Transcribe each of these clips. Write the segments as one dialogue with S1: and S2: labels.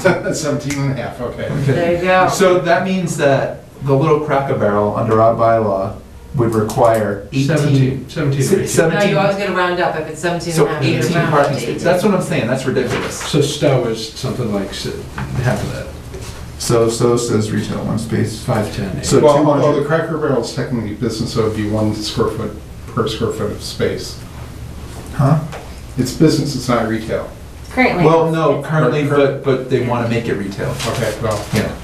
S1: Seventeen and a half, okay.
S2: There you go.
S3: So that means that the little cracker barrel under our bylaw would require eighteen.
S4: Seventeen, seventeen or
S3: se-
S2: No,
S4: eighteen.
S2: you always
S3: Seventeen,
S2: gotta round up, if it's seventeen and
S3: so
S2: a half, you
S3: eighteen
S2: gotta round up
S3: parking
S2: to
S3: spaces,
S2: 18.
S3: that's what I'm saying, that's ridiculous.
S4: So Stowe is something like s- half of that,
S3: So, so says retail one space.
S4: five, ten, eight.
S3: So
S1: Well,
S3: 200.
S1: although the Cracker Barrel's technically business, so it'd be one square foot per square foot of space.
S3: Huh?
S1: It's business, it's not retail.
S5: Currently.
S3: Well, no,
S5: it's-
S3: currently, but, but they wanna make it retail.
S1: Okay, well,
S3: Yeah,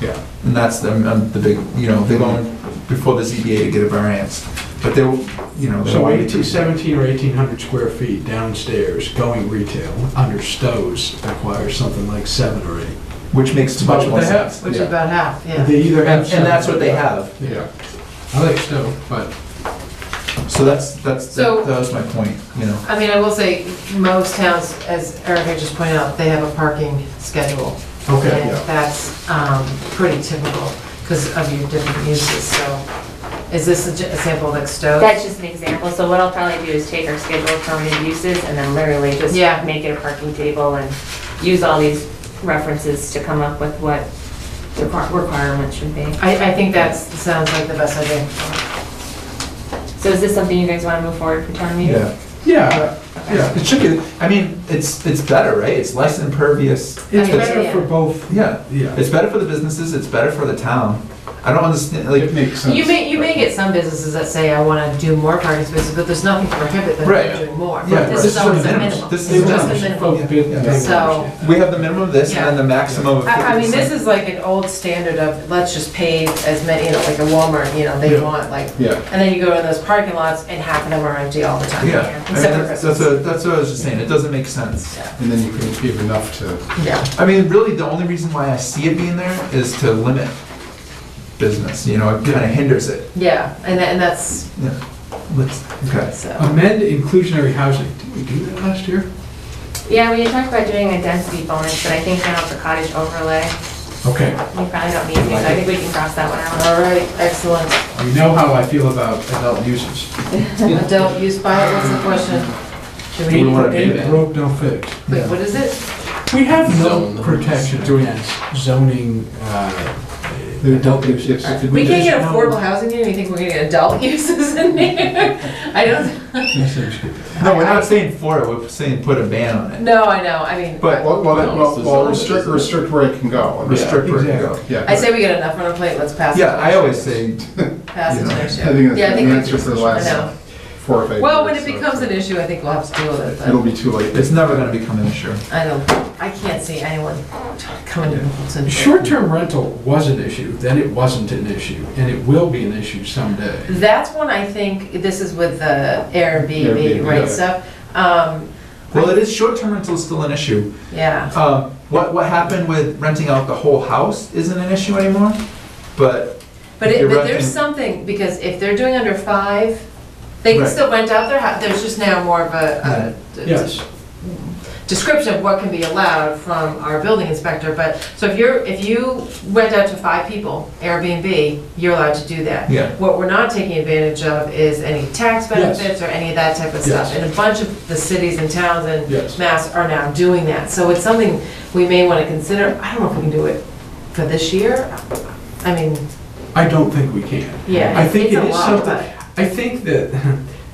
S1: yeah.
S3: and that's the, um, the big, you know, they went before the ZBA to get a variance, but they, will, you know. they
S4: So
S3: wanted to-
S4: eighteen, seventeen or eighteen hundred square feet downstairs, going retail, under Stowe's requires something like seven or eight.
S3: Which makes too much
S4: Well,
S3: more
S4: they have-
S3: sense.
S2: Which is
S1: Yeah.
S2: about half, yeah.
S4: They either
S3: And,
S4: have.
S3: and that's
S4: seven
S3: what
S4: or
S3: they
S4: eight.
S3: have,
S4: Yeah, I like Stowe, but
S3: so that's, that's,
S2: So-
S3: that that was my point, you know.
S2: I mean, I will say, most towns, as Erica just pointed out, they have a parking schedule.
S4: Okay,
S2: And
S4: yeah.
S2: that's um, pretty typical because of your different uses, so is this a j- a sample like Stowe?
S5: That's just an example, so what I'll probably do is take our schedule of permitted uses and then literally just
S2: Yeah.
S5: make it a parking table and use all these references to come up with what the requir- requirements should be.
S2: I, I think that's, sounds like the best idea.
S5: So is this something you guys want to move forward for town meeting?
S3: Yeah,
S4: Yeah, yeah.
S3: it should be, I mean, it's, it's better, right? It's less impervious.
S4: It's
S2: I mean,
S4: better
S2: yeah.
S4: for both.
S3: Yeah,
S4: Yeah.
S3: it's better for the businesses, it's better for the town. I don't understand,
S1: It
S3: like,
S1: makes sense.
S2: You may, you may get some businesses that say, I want to do more parking spaces, but there's nothing to prohibit them
S3: Right.
S2: from doing more.
S3: Yeah,
S2: This
S3: right.
S2: is
S3: This is
S2: always
S3: the
S2: a
S3: minimum.
S2: minimum.
S3: This
S2: It's
S3: is the
S2: just a
S3: minimum.
S2: minimum. So-
S3: we have the minimum of this and then the maximum of fifty
S2: I, I
S3: percent.
S2: mean, this is like an old standard of, let's just pave as many, you know, like a Walmart, you know, they
S4: Yeah.
S2: want like,
S1: Yeah.
S2: and then you go to those parking lots and half of them are empty all the time.
S3: Yeah, I mean,
S2: Except for
S3: that's, that's
S2: Christmas.
S3: what- that's what I was just saying, it doesn't make sense.
S2: Yeah.
S1: And then you can give enough to,
S2: Yeah.
S3: I mean, really, the only reason why I see it being there is to limit business, you know, it kinda hinders it.
S2: Yeah, and tha- and that's,
S3: Yeah. Let's, okay.
S2: so,
S4: Amend inclusionary housing. Did we do that last year?
S5: Yeah, we had talked about doing a density bonus, but I think now with the cottage overlay,
S4: Okay.
S5: we probably don't need to, so I think we can cross that one out.
S2: all right, excellent.
S4: You know how I feel about adult uses.
S2: Adult use bylaw, what's the question? Should
S3: Do
S2: we,
S3: we wanna do
S4: Ain't
S3: that?
S4: broke, don't fix.
S2: wait, what is it?
S4: We have
S6: Zone
S4: no
S6: the-
S4: protection
S3: Do we-
S4: against zoning, uh, adult
S1: if-
S4: uses.
S1: if- if
S2: We can't get
S4: There's no-
S2: affordable housing here, you think we're gonna get adult uses in here? I don't,
S4: Yes, there's good.
S3: No, we're not saying for it, we're saying put a ban on it.
S2: no, I know, I mean,
S3: But-
S1: Well, well,
S6: No, it's
S1: well,
S6: the
S1: well,
S6: zone,
S1: restrict,
S6: isn't it?
S1: restrict where it can go. and
S3: Restrict where it can
S4: exactly.
S3: go.
S1: Yeah.
S2: I say we get enough on our plate, let's pass it.
S3: Yeah, I always say,
S2: Pass it to the issue.
S1: I think that's
S2: Yeah, I
S1: the
S2: think
S1: answer
S2: that's-
S1: for the
S2: I know.
S1: last four or five years.
S2: Well, when it
S1: so
S2: becomes an issue, I think we'll have to deal with it,
S1: It'll
S2: but
S1: be too late.
S3: it's never gonna become an issue.
S2: I don't, I can't see anyone coming to Littleton.
S4: Short-term rental was an issue, then it wasn't an issue, and it will be an issue someday.
S2: That's one I think, this is with the Airbnb,
S1: Airbnb,
S2: right,
S1: yeah.
S2: stuff, um,
S3: Well, it is, short-term rental is still an issue.
S2: yeah.
S3: Um, what, what happened with renting out the whole house isn't an issue anymore, but,
S2: But
S3: If
S2: it,
S3: you're
S2: but there's
S3: renting-
S2: something, because if they're doing under five, they can
S3: Right.
S2: still rent out their house, there's just now more of a, a
S4: Yes,
S2: description of what can be allowed from our building inspector, but, so if you're, if you went out to five people, Airbnb, you're allowed to do that.
S3: Yeah.
S2: What we're not taking advantage of is any tax benefits or any of that type of stuff.
S4: Yes.
S2: And a bunch of the cities and towns and
S4: Yes.
S2: mass are now doing that, so it's something we may wanna consider, I don't know if we can do it for this year, I mean,
S4: I don't think we can.
S2: yeah.
S4: I think
S2: it's
S4: it
S2: a
S4: is
S2: lot,
S4: something,
S2: but-
S4: I think that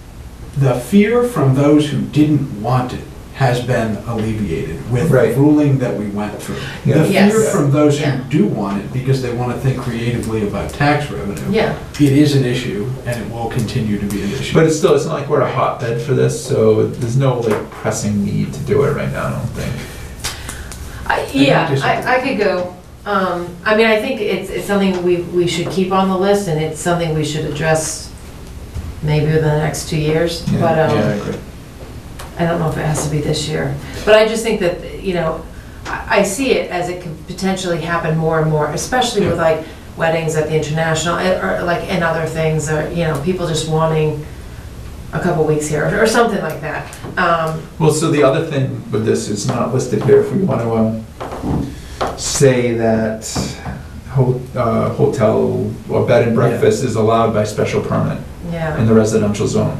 S4: the fear from those who didn't want it has been alleviated with the
S3: Right.
S4: ruling that we went through. The
S2: Yeah.
S4: fear
S2: Yes.
S4: from those
S2: Yeah.
S4: who do want it, because they want to think creatively about tax revenue.
S2: Yeah.
S4: It is an issue, and it will continue to be an issue.
S3: but it's still, it's not like we're a hotbed for this, so there's no like pressing need to do it right now, I don't think.
S2: I- Yeah,
S4: just-
S2: I, I could go. Um, I mean, I think it's, it's something we, we should keep on the list and it's something we should address maybe within the next two years,
S3: Yeah,
S2: but,
S4: yeah, I
S2: um,
S4: agree.
S2: I don't know if it has to be this year. But I just think that, you know, I, I see it as it could potentially happen more and more, especially with like weddings at the international, eh, or like, and other things, or, you know, people just wanting a couple weeks here, or something like that. Um,
S3: Well, so the other thing with this is not listed here, if we wanna, um, say that ho- uh, hotel or bed and breakfast is allowed by special permit in
S2: yeah,
S3: the residential zone.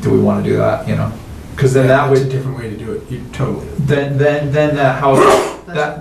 S3: Do we wanna do that, you know? Cause then that
S4: That's a
S3: would,
S4: different way to do it, you totally.
S3: then, then, then that house, that,